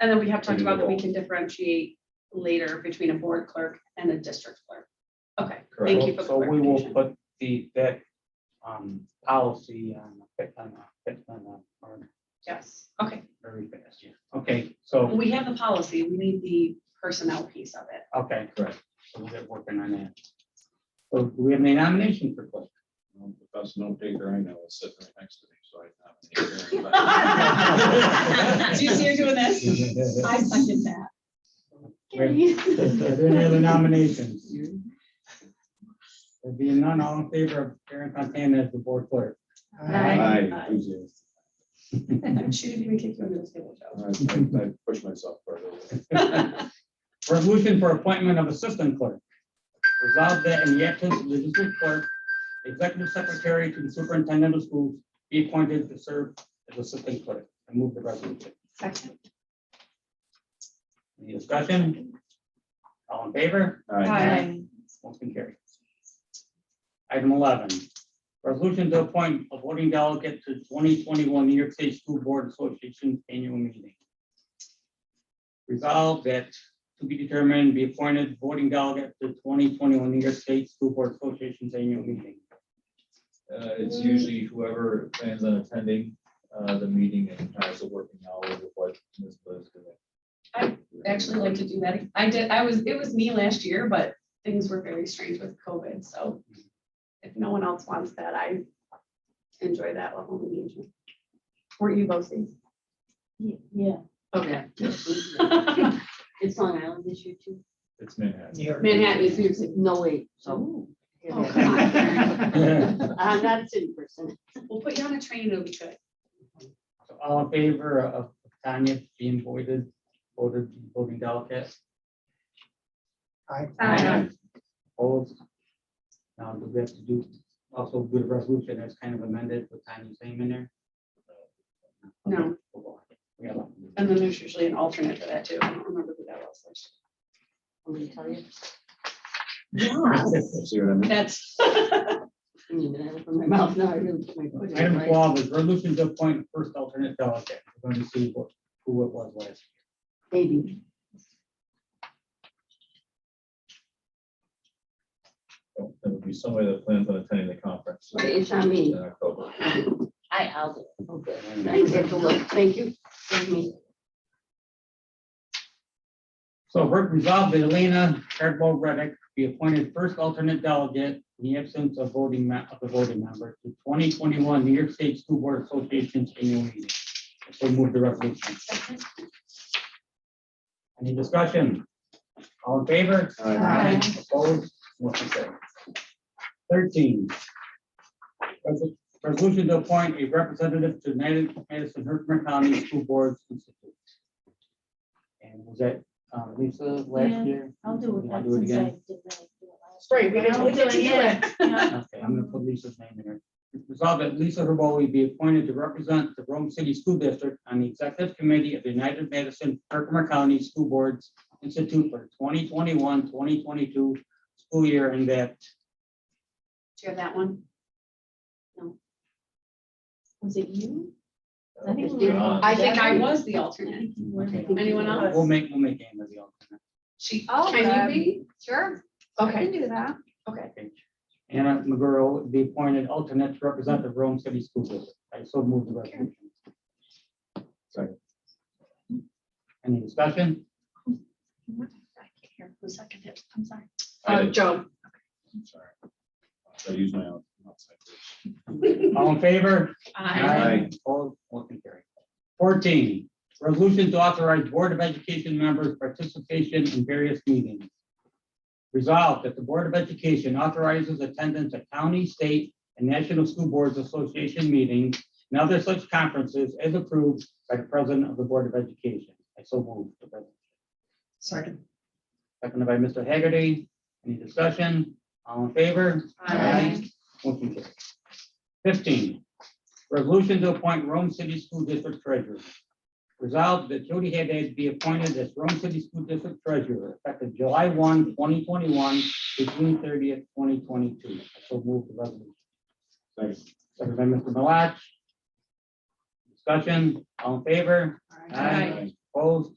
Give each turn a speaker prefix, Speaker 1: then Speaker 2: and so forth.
Speaker 1: And then we have talked
Speaker 2: Maybe
Speaker 1: about that we
Speaker 2: we'll-
Speaker 1: can differentiate later between a board clerk and a district clerk. Okay,
Speaker 2: Correct.
Speaker 1: thank you for
Speaker 3: So we will
Speaker 1: clarification.
Speaker 3: put the, that, um, policy on, the uh, fit- on, the- fit- on, the- on
Speaker 1: Yes, okay.
Speaker 3: very fast, yeah. Okay, so,
Speaker 1: We have the policy, we need the personnel piece of it.
Speaker 3: okay,
Speaker 2: Correct.
Speaker 3: so we'll get working on that. So do we have any nomination for clerk?
Speaker 2: Um, The best note taker I know is sitting right next to me, so I nominate her.
Speaker 1: Do you see her doing this? I second that.
Speaker 3: Wait. Is there Any other nominations? There being none, all in favor of Karen Fontana as the board clerk?
Speaker 1: Aye.
Speaker 2: Aye, who's you?
Speaker 1: I'm shooting you and kick you under the table, Joe.
Speaker 2: I I- I push myself further.
Speaker 3: Resolution for appointment of assistant clerk. Resolved that in the absence of the district clerk, the executive secretary to the superintendent of schools be appointed to serve as assistant clerk. I move the resolution.
Speaker 1: Second.
Speaker 3: Any discussion? All in favor?
Speaker 2: Aye.
Speaker 1: Aye.
Speaker 3: Motion carries. Item eleven, resolution to appoint a voting delegate to twenty twenty-one New York State School Board Association annual meeting. Resolved that to be determined, be appointed voting delegate to twenty twenty-one New York State School Board Association's annual meeting.
Speaker 4: Uh, it's usually whoever plans on attending, uh, the meeting and has a working hour with what Ms. Bliss doing.
Speaker 1: Actually like to do that. I did, I was, it was me last year, but things were very strange with COVID, so if no one else wants that, I enjoy that level of engagement. Weren't you both these?
Speaker 5: Yeah,
Speaker 1: Okay.
Speaker 5: it's Long Island this year too.
Speaker 4: It's Manhattan.
Speaker 5: Manhattan is music, no wait, so.
Speaker 1: Oh, come on.
Speaker 5: I'm not a city person.
Speaker 1: We'll put you on a train, it'll be good.
Speaker 3: So All in favor of Tanya being voted, voted voting delegate?
Speaker 5: Um,
Speaker 1: Aye.
Speaker 3: Opposed? Now, do we have to do also do the resolution that's kind of amended with Tanya's name in there?
Speaker 1: No.
Speaker 3: We got one.
Speaker 1: And then there's usually an alternate for that too. I don't remember who that was.
Speaker 5: I'm gonna tell you.
Speaker 2: See what I mean?
Speaker 1: That's.
Speaker 5: I mean, I have from my mouth, now I really put my foot in
Speaker 3: Item
Speaker 5: my-
Speaker 3: twelve is resolution to appoint first alternate delegate. We're going to see what, who it was last.
Speaker 5: Maybe.
Speaker 4: That would be somebody that plans on attending the conference.
Speaker 5: Right, it's not me.
Speaker 4: In October.
Speaker 5: I, I'll do it. Okay.
Speaker 3: year.
Speaker 5: Thanks, have to look. Thank you. Thank me.
Speaker 3: So re- resolved that Elena Hardball Reddick be appointed first alternate delegate in the absence of voting, me- of the voting member to twenty twenty-one New York State School Board Association's annual meeting. So move the resolution. Any discussion? All in favor?
Speaker 2: Aye.
Speaker 3: Opposed? Motion carries. Thirteen. Resol- Resolution to appoint a representative to United Madison Herkimer County School Boards Institute. And was that uh, Lisa
Speaker 6: Yeah,
Speaker 3: last year?
Speaker 6: I'll do
Speaker 3: You
Speaker 6: it.
Speaker 3: wanna
Speaker 6: then,
Speaker 3: do it
Speaker 6: since I
Speaker 3: again?
Speaker 6: did that, I do it last
Speaker 1: Right, we
Speaker 6: time.
Speaker 1: didn't- we didn't do
Speaker 6: Yeah.
Speaker 3: Okay, I'm gonna put Lisa's name in there. Resolved that Lisa Herboli be appointed to represent the Rome City School District on the Executive Committee of the United Madison Herkimer County School Boards Institute for 2021-2022 school year and that
Speaker 1: Do you have that one?
Speaker 6: Was it you?
Speaker 4: Uh,
Speaker 6: think
Speaker 5: It's
Speaker 6: we were-
Speaker 5: different.
Speaker 1: I think I was the alternate. Anyone else?
Speaker 3: we'll make, we'll make Anna the alternate.
Speaker 1: She,
Speaker 6: Oh,
Speaker 1: can
Speaker 6: um,
Speaker 1: you be?
Speaker 6: Sure.
Speaker 1: Okay.
Speaker 6: do that.
Speaker 3: Okay. Anna McGurl would be appointed alternate to represent the Rome City School District. I so move the resolution.
Speaker 2: Second.
Speaker 3: Any discussion?
Speaker 1: I can't hear who seconded it. I'm sorry.
Speaker 2: I
Speaker 1: Uh,
Speaker 2: did.
Speaker 1: Joe.
Speaker 2: I'm sorry. I use my own. outside voice.
Speaker 3: All in favor?
Speaker 1: I
Speaker 2: Aye.
Speaker 3: Opposed, motion carried. Fourteen, resolution to authorize Board of Education members participation in various meetings. Resolved that the Board of Education authorizes attendance at county, state, and national school boards association meetings and other such conferences as approved by the President of the Board of Education. I so move. the resolution.
Speaker 1: Second.
Speaker 3: Seconded by Mr. Hagerty. Any discussion? All in favor?
Speaker 1: Aye.
Speaker 3: Motion carries. Fifteen, resolution to appoint Rome City School District Treasurer. Resolved that Jody Haddad be appointed as Rome City School District Treasurer effective July 1, 2021, to June thirtieth, twenty twenty-two. So move the resolution.
Speaker 2: Second.
Speaker 3: Second by Mr. Malatch. Discussion, all in favor?
Speaker 1: Aye.
Speaker 3: Opposed?